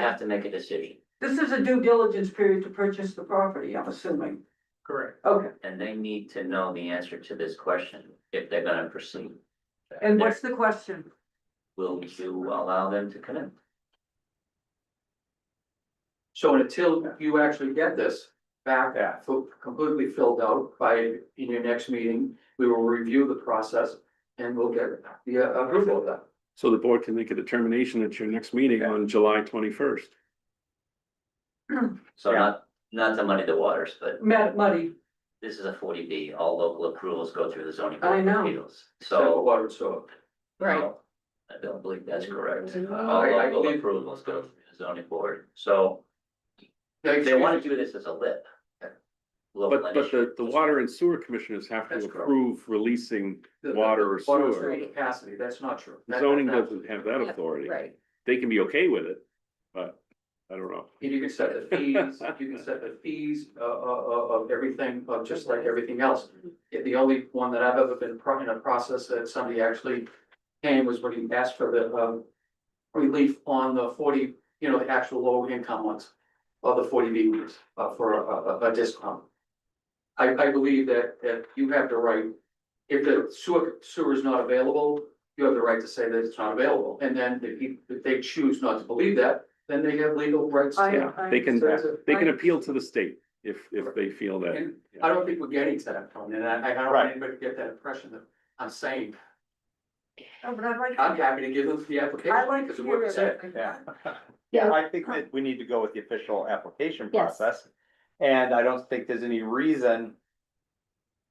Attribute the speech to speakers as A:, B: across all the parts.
A: have to make a decision,
B: This is a due diligence period to purchase the property, I'm assuming.
C: Correct.
B: Okay,
A: and they need to know the answer to this question if they're gonna proceed.
B: and what's the question?
A: Will you allow them to come in?
C: So until you actually get this back fu- completely filled out by, in your next meeting, we will review the process and we'll get the uh, approval of that.
D: So the board can make a determination at your next meeting on July twenty-first.
A: So not, not to muddy the waters, but
B: Matt Muddy,
A: this is a forty B, all local approvals go through the zoning.
B: I
A: board of
B: know.
A: appeals.
C: Except for
A: So.
C: Water and sewer.
A: Right. I don't believe that's correct.
B: Mm-hmm.
A: Uh, All
C: I- I
A: local
C: believe-
A: approvals go through the zoning board, so
C: They-
A: they wanna do this as a lip. Local
D: But, but the, the
A: initiative.
D: water and sewer commissioners have to
C: That's correct.
D: approve releasing,
C: the-
D: water or
C: water and
D: sewer.
C: Capacity, that's not true. That-
D: zoning
C: that-
D: doesn't have that authority.
E: Right.
D: They can be okay with it, but I don't know.
C: You can set the fees, you can set the fees uh, uh, uh, of everything, of just like everything else. Yeah, The only one that I've ever been pro- in a process that somebody actually came was when he asked for the um. Relief on the forty, you know, the actual low income ones, or the forty B ones, uh, for a- a, a, a discount. I, I believe that, that you have the right, if the sewer, sewer is not available, you have the right to say that it's not available. And then if he, if they choose not to believe that, then they have legal rights. to-
B: I-
D: Yeah, they can,
C: So it's a-
D: they can appeal to the state if, if they feel that.
C: And I don't think we're getting to that point, and I, I don't want
D: Right.
C: anybody to get that impression that I'm saying,
B: Oh, but I'd like,
C: I'm
B: to-
C: happy to give them the
B: I'd
C: application,
B: like
C: because
B: to
C: of what
B: hear
C: you said.
B: it.
F: Yeah.
E: Yeah.
F: Yeah, I think that we need to go with the official application
E: Yes.
F: process. And I don't think there's any reason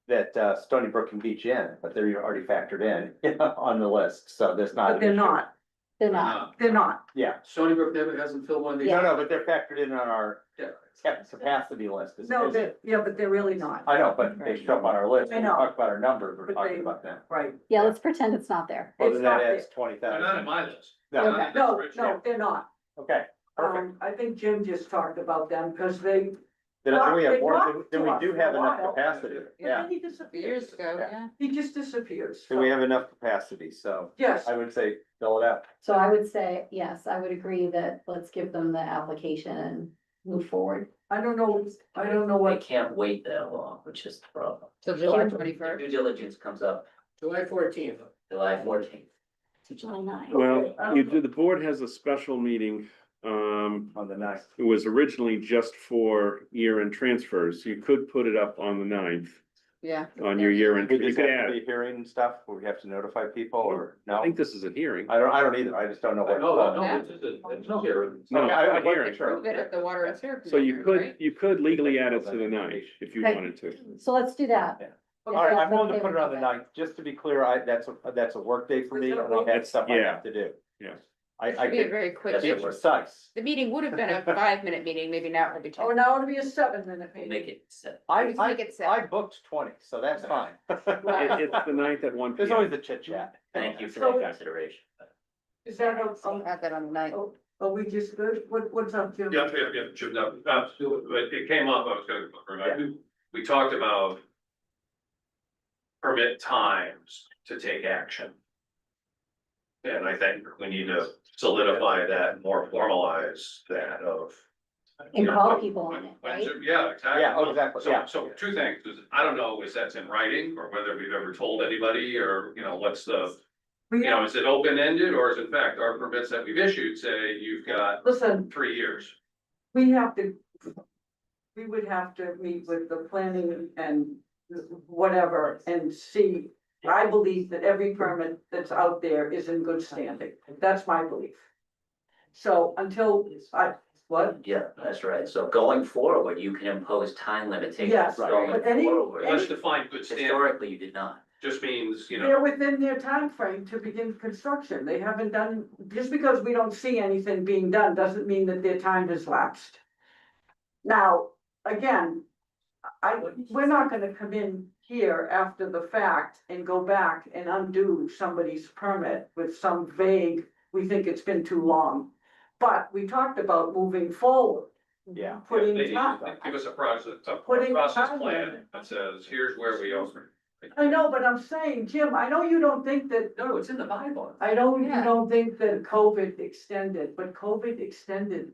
F: that uh, Stony Brook can beach in, but they're already factored in on the list, so there's not.
B: But
F: an
B: they're
F: issue.
B: not,
E: They're
F: Uh,
E: not.
B: they're not.
C: Stony Uh, Brook never hasn't filled one of these.
F: No, no, but they're factored in on our
C: Yeah.
F: cap- capacity list. is-
B: No,
F: is-
B: they're, yeah, but they're really not,
F: I know, but they show up on our list.
B: I
F: When we
B: know.
F: talk about our numbers, we're
B: But
F: talking
B: they-
F: about them.
B: right?
E: Yeah, let's pretend it's not there.
F: Well,
B: It's
F: then that
B: not
F: adds twenty thousand.
C: my list.
F: No,
E: Okay.
B: No, no, they're not.
F: okay, perfect.
B: Um, I think Jim just talked about them, because they,
F: Then then we have
B: They
F: more,
B: talked
F: then
B: to
F: we
B: us
F: do
B: for
F: have
B: a
F: enough
B: while.
F: capacity, yeah.
B: he disappears,
E: ago,
F: Yeah.
B: he just disappears.
F: So we have enough capacity, so
B: Yes,
F: I would say fill it out.
E: So I would say, yes, I would agree that let's give them the application and move forward.
B: I don't know, I don't know
A: They
B: what,
A: can't wait that long, which is the problem.
E: So
B: July
A: Due diligence comes up
C: July fourteenth.
A: July fourteenth.
E: July nine.
D: Well,
B: I don't
D: you
B: know.
D: do, the board has a special meeting, um,
F: On the ninth.
D: it was originally just for year-end transfers. You could put it up on the ninth,
E: Yeah.
D: on your year-end,
F: We
D: you
F: just
D: could
F: have to
D: add,
F: be hearing and stuff, where we have to notify people or no?
D: I think this is a hearing.
F: I don't, I don't either, I just don't know what.
C: No, no, it's just a- it's no hearing.
D: No,
F: Okay,
D: it's
F: I-
D: not
F: I'd like to
D: hearing.
F: sure.
E: water and sewer.
D: So you could, you could legally add it to the ninth if you
E: Okay.
D: wanted to.
E: So let's do that.
F: All right, I'm willing to put it on the ninth, just to be clear, I, that's, a that's a work day for me, and I have stuff I have to do.
D: Yeah.
F: I, I
G: Be a
F: could
G: very quick,
A: That's
F: be
A: it.
G: meeting.
F: precise,
G: the meeting would have been a five minute meeting, maybe now it'll be
B: oh,
G: ten.
B: now it'll be a seven minute
A: We'll
B: meeting.
A: make it set.
F: I,
G: Just make
F: I,
G: it seven.
F: I booked twenty, so that's fine.
G: Wow.
D: It, it's the ninth at one P
F: There's
D: M.
F: always the chit chat.
A: Thank you for
B: So-
A: that consideration.
B: Is that, a-
G: So
B: um,
G: Add that on the ninth.
B: are we just good? What, what's up, Jim?
H: Yeah, yeah, yeah, Jim, no, absolutely, but it came up, I was gonna remind you, we talked about. Permit times to take action. And I think we need to solidify that, more formalize that of.
E: And call people on it,
H: When-
E: right?
H: when- Yeah, exactly.
F: Yeah, oh, exactly, yeah.
H: So, so two things, is I don't know if that's in writing or whether we've ever told anybody or, you know, what's the,
B: We
H: you know,
B: have,
H: is it open ended or is in fact our permits that we've issued say you've got
B: listen,
H: three years?
B: we have to, we would have to meet with the planning and whatever and see. I believe that every permit that's out there is in good standing. That's my belief. So until I, what?
A: Yeah, that's right. So going forward, you can impose time limitations
B: Yes,
A: going
B: but any-
H: Let's
A: forward.
H: define good standard,
A: Historically, you did not.
H: just means, you know,
B: They're within their time frame to begin construction. They haven't done, just because we don't see anything being done, doesn't mean that their time has lapsed. Now, again, I, we're not gonna come in here after the fact and go back and undo somebody's permit with some vague, we think it's been too long. But we talked about moving forward.
F: Yeah.
B: Putting
H: they-
B: time.
H: they give us a process, a
B: Putting
H: process
B: time
H: plan
B: in.
H: that says, here's where we are.
B: I know, but I'm saying, Jim, I know you don't think that
C: No, it's in the Bible.
B: I don't, you
G: Yeah.
B: don't think that COVID extended, but COVID extended